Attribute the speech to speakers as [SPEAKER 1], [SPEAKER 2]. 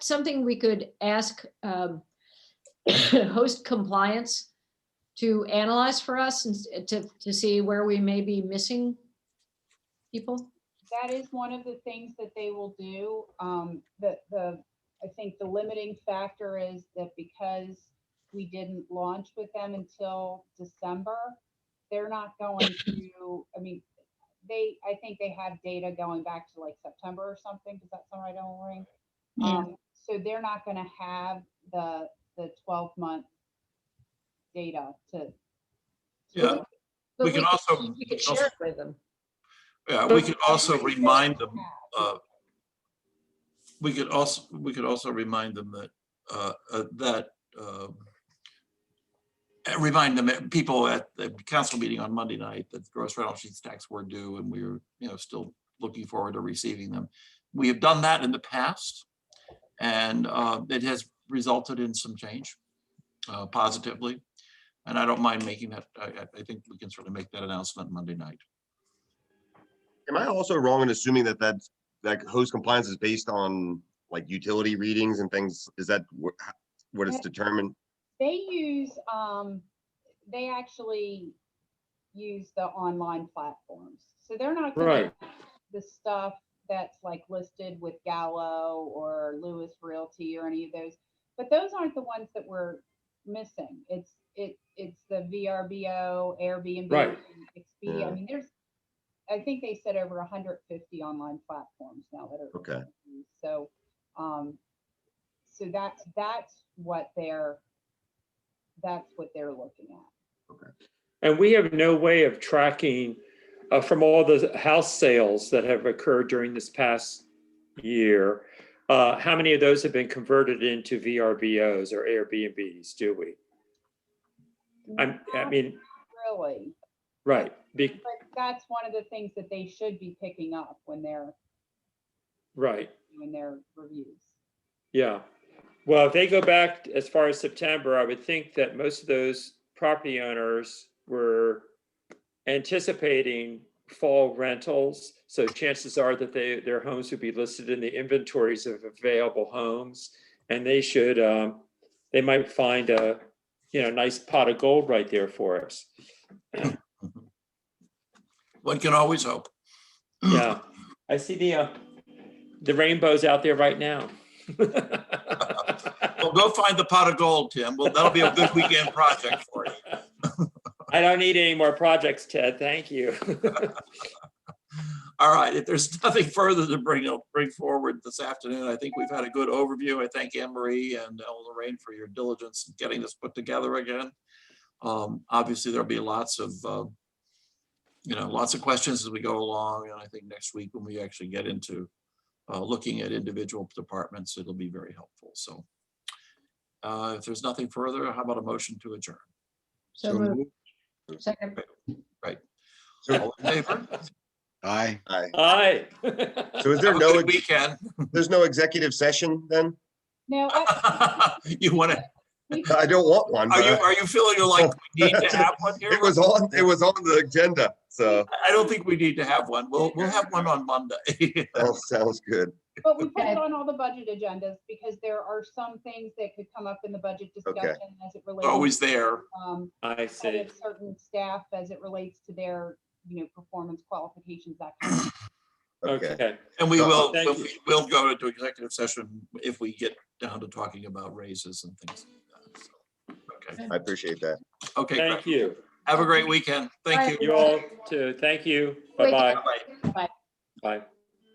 [SPEAKER 1] something we could ask um, host compliance to analyze for us and s- to, to see where we may be missing people?
[SPEAKER 2] that is one of the things that they will do. Um, the, the, I think the limiting factor is that because we didn't launch with them until December, they're not going to, I mean, they, I think they have data going back to like September or something. Does that sound right, Ellen Marie?
[SPEAKER 1] Yeah.
[SPEAKER 2] Um, so they're not gonna have the, the twelve month data to.
[SPEAKER 3] Yeah,
[SPEAKER 1] But
[SPEAKER 3] We can
[SPEAKER 1] could-
[SPEAKER 3] also-
[SPEAKER 1] We could share it with them.
[SPEAKER 3] yeah, we could also
[SPEAKER 2] They
[SPEAKER 3] remind them,
[SPEAKER 2] have.
[SPEAKER 3] uh, we could also, we could also remind them that, uh, uh, that, um, uh, remind them, that people at the council meeting on Monday night, that gross rental sheets tax were due and we were, you know, still looking forward to receiving them. We have done that in the past and, uh, it has resulted in some change, uh, positively. And I don't mind making that, I, I- I think we can certainly make that announcement Monday night.
[SPEAKER 4] Am I also wrong in assuming that that's, that host compliance is based on like utility readings and things? Is that wh- h- what it's
[SPEAKER 2] Yeah.
[SPEAKER 4] determined?
[SPEAKER 2] They use, um, they actually use the online platforms. So they're not gonna
[SPEAKER 5] Right.
[SPEAKER 2] have the stuff that's like listed with Gallo or Lewis Realty or any of those. But those aren't the ones that we're missing. It's, it, it's the VRBO, Airbnb,
[SPEAKER 5] Right.
[SPEAKER 2] Expedia. I
[SPEAKER 4] Yeah.
[SPEAKER 2] mean, there's, I think they said over hundred fifty online platforms now that are.
[SPEAKER 4] Okay.
[SPEAKER 2] So, um, so that's, that's what they're, that's what they're looking at.
[SPEAKER 5] And we have no way of tracking uh, from all the house sales that have occurred during this past year. Uh, how many of those have been converted into VRBOs or Airbnbs, do we? I'm, I
[SPEAKER 2] Not
[SPEAKER 5] mean,
[SPEAKER 2] Really,
[SPEAKER 5] right, be,
[SPEAKER 2] but that's one of the things that they should be picking up when they're,
[SPEAKER 5] right,
[SPEAKER 2] doing their reviews.
[SPEAKER 5] yeah. Well, if they go back as far as September, I would think that most of those property owners were anticipating fall rentals. So chances are that they, their homes would be listed in the inventories of available homes. And they should, um, they might find a, you know, nice pot of gold right there for us.
[SPEAKER 3] One can always hope.
[SPEAKER 5] Yeah. I see the, uh, the rainbows out there right now.
[SPEAKER 3] Well, go find the pot of gold, Tim. Well, that'll be a good weekend project for you.
[SPEAKER 5] I don't need any more projects, Ted. Thank you.
[SPEAKER 3] All right, if there's nothing further to bring, up- bring forward this afternoon, I think we've had a good overview. I thank Anne Marie and Ellen Lorraine for your diligence in getting this put together again. Um, Obviously, there'll be lots of, uh, you know, lots of questions as we go along, and I think next week when we actually get into uh, looking at individual departments, it'll be very helpful, so. uh, If there's nothing further, how about a motion to adjourn?
[SPEAKER 1] So moved. Second.
[SPEAKER 3] All in favor?
[SPEAKER 6] Aye.
[SPEAKER 4] Aye.
[SPEAKER 5] Hi.
[SPEAKER 4] So is there
[SPEAKER 3] Have a good
[SPEAKER 4] no,
[SPEAKER 3] weekend.
[SPEAKER 4] there's no executive session then?
[SPEAKER 2] No, I-
[SPEAKER 3] You want to,
[SPEAKER 2] we-
[SPEAKER 4] I don't want one.
[SPEAKER 3] are
[SPEAKER 4] but
[SPEAKER 3] you, are you feeling like we need to have one here?
[SPEAKER 4] It was on, it was on the agenda, so
[SPEAKER 3] I- I don't think we need to have one. We'll, we'll have one on Monday.
[SPEAKER 4] that sounds good.
[SPEAKER 2] but we put
[SPEAKER 1] Okay.
[SPEAKER 2] it on all the budget agendas because there are some things that could come up in the budget discussion as it relates.
[SPEAKER 3] Always
[SPEAKER 2] to,
[SPEAKER 3] there.
[SPEAKER 2] Um,
[SPEAKER 5] I
[SPEAKER 2] kind
[SPEAKER 5] see.
[SPEAKER 2] of certain staff as it relates to their, you know, performance qualifications, that kind of thing.
[SPEAKER 4] Okay.
[SPEAKER 5] Okay.
[SPEAKER 3] And we will,
[SPEAKER 5] Thank you.
[SPEAKER 3] we will go into executive session if we get down to talking about raises and things. like that. So, Okay,
[SPEAKER 4] I appreciate that.
[SPEAKER 3] okay,
[SPEAKER 5] Thank
[SPEAKER 3] great.
[SPEAKER 5] you.
[SPEAKER 3] Have a great weekend. Thank you.
[SPEAKER 5] You all too. Thank you. Bye-bye.
[SPEAKER 3] Bye-bye.
[SPEAKER 5] Bye.